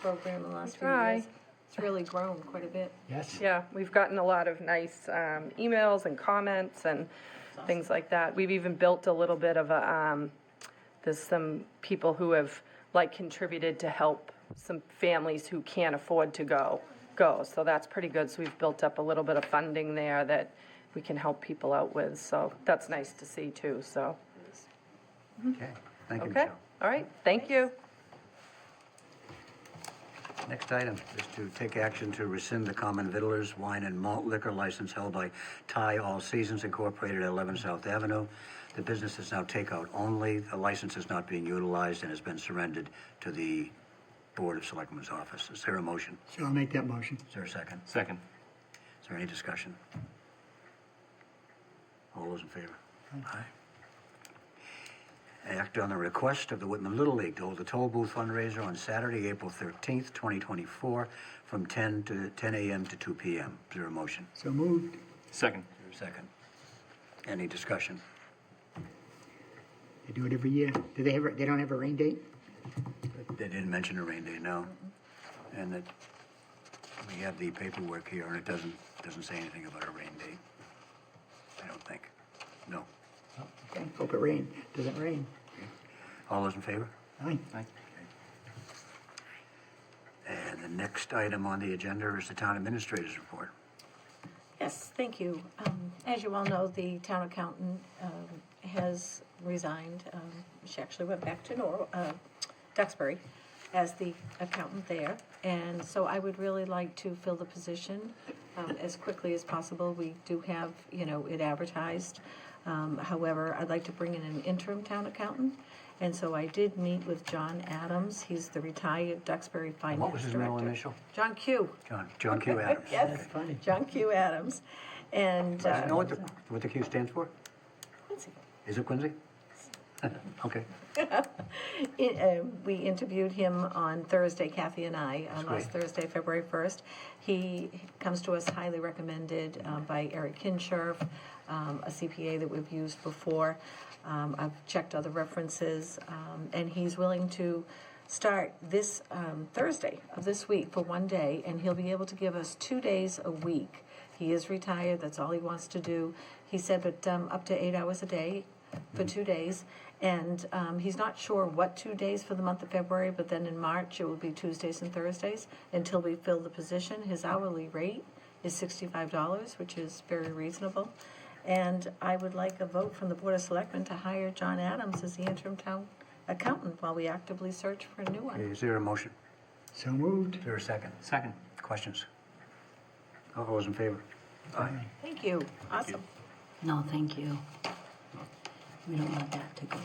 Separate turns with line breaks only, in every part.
program in the last few
Try.
years. It's really grown quite a bit.
Yes.
Yeah, we've gotten a lot of nice um, emails and comments and things like that. We've even built a little bit of a, um, there's some people who have like contributed to help some families who can't afford to go, go. So that's pretty good. So we've built up a little bit of funding there that we can help people out with. So that's nice to see too, so.
Okay. Thank you,
Okay,
Michelle.
all right, thank you.
Next item is to take action to rescind the common vittler's wine and malt liquor license held by Thai All Seasons Incorporated at 11 South Avenue. The business is now takeout only. The license is not being utilized and has been surrendered to the Board of Selectmen's office. Is there a motion?
So I'll make that motion.
Is there a second?
Second.
Is there any discussion? All those in favor? Aye. Act on the request of the Whitman Little League to hold a toll booth fundraiser on Saturday, April 13th, 2024, from 10 to 10 a.m. to 2 p.m. Is there a motion?
So moved.
Second.
Is there a second? Any discussion?
They do it every year. Do they ever, they don't have a rain date?
They didn't mention a rain day, no. And that, we have the paperwork here, and it doesn't, doesn't say anything about a rain date. I don't think. No.
Okay, hope it rain. Doesn't rain.
All those in favor?
Aye.
And the next item on the agenda is the town administrator's report.
Yes, thank you. Um, As you all know, the town accountant um, has resigned. Um, She actually went back to Nor, uh, Duxbury as the accountant there. And so I would really like to fill the position um, as quickly as possible. We do have, you know, it advertised. Um, However, I'd like to bring in an interim town accountant. And so I did meet with John Adams. He's the retired Duxbury Finance Director.
What was his middle initial?
John Q.
John, John Q. Adams.
Yes,
funny.
John Q. Adams. And,
Does
uh,
he know what the, what the Q stands for?
let's see.
Is it Quincy? Okay,
It, uh, we interviewed him on Thursday, Kathy and I, on last
great.
Thursday, February 1st. He comes to us highly recommended um, by Eric Kinshirf, um, a CPA that we've used before. Um, I've checked other references, um, and he's willing to start this um, Thursday of this week for one day, and he'll be able to give us two days a week. He is retired, that's all he wants to do. He said, but um, up to eight hours a day for two days. And um, he's not sure what two days for the month of February, but then in March, it will be Tuesdays and Thursdays until we fill the position. His hourly rate is $65, which is very reasonable. And I would like a vote from the Board of Selectmen to hire John Adams as the interim town accountant while we actively search for a new one.
is there a motion?
So moved.
Is there a second?
Second.
Questions? All those in favor? Aye.
Thank you. Awesome.
No, thank you. We don't want that to go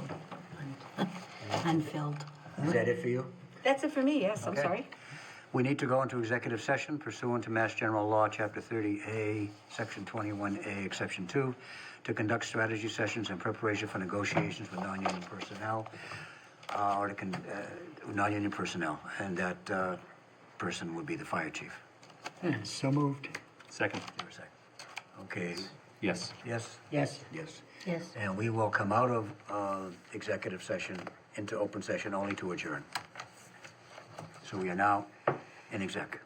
un- unfilled.
Is that it for you?
That's it for me, yes, I'm
Okay.
sorry.
We need to go into executive session pursuant to Mass General Law, Chapter 30A, Section 21A, Exception 2, to conduct strategy sessions in preparation for negotiations with non-union personnel, uh, or to, con- uh, non-union personnel, and that uh, person would be the fire chief.
So moved.
Second.
Give me a sec. Okay,
Yes.
yes?
Yes.
Yes.
Yes.
And we will come out of uh, executive session into open session only to adjourn. So we are now in exec.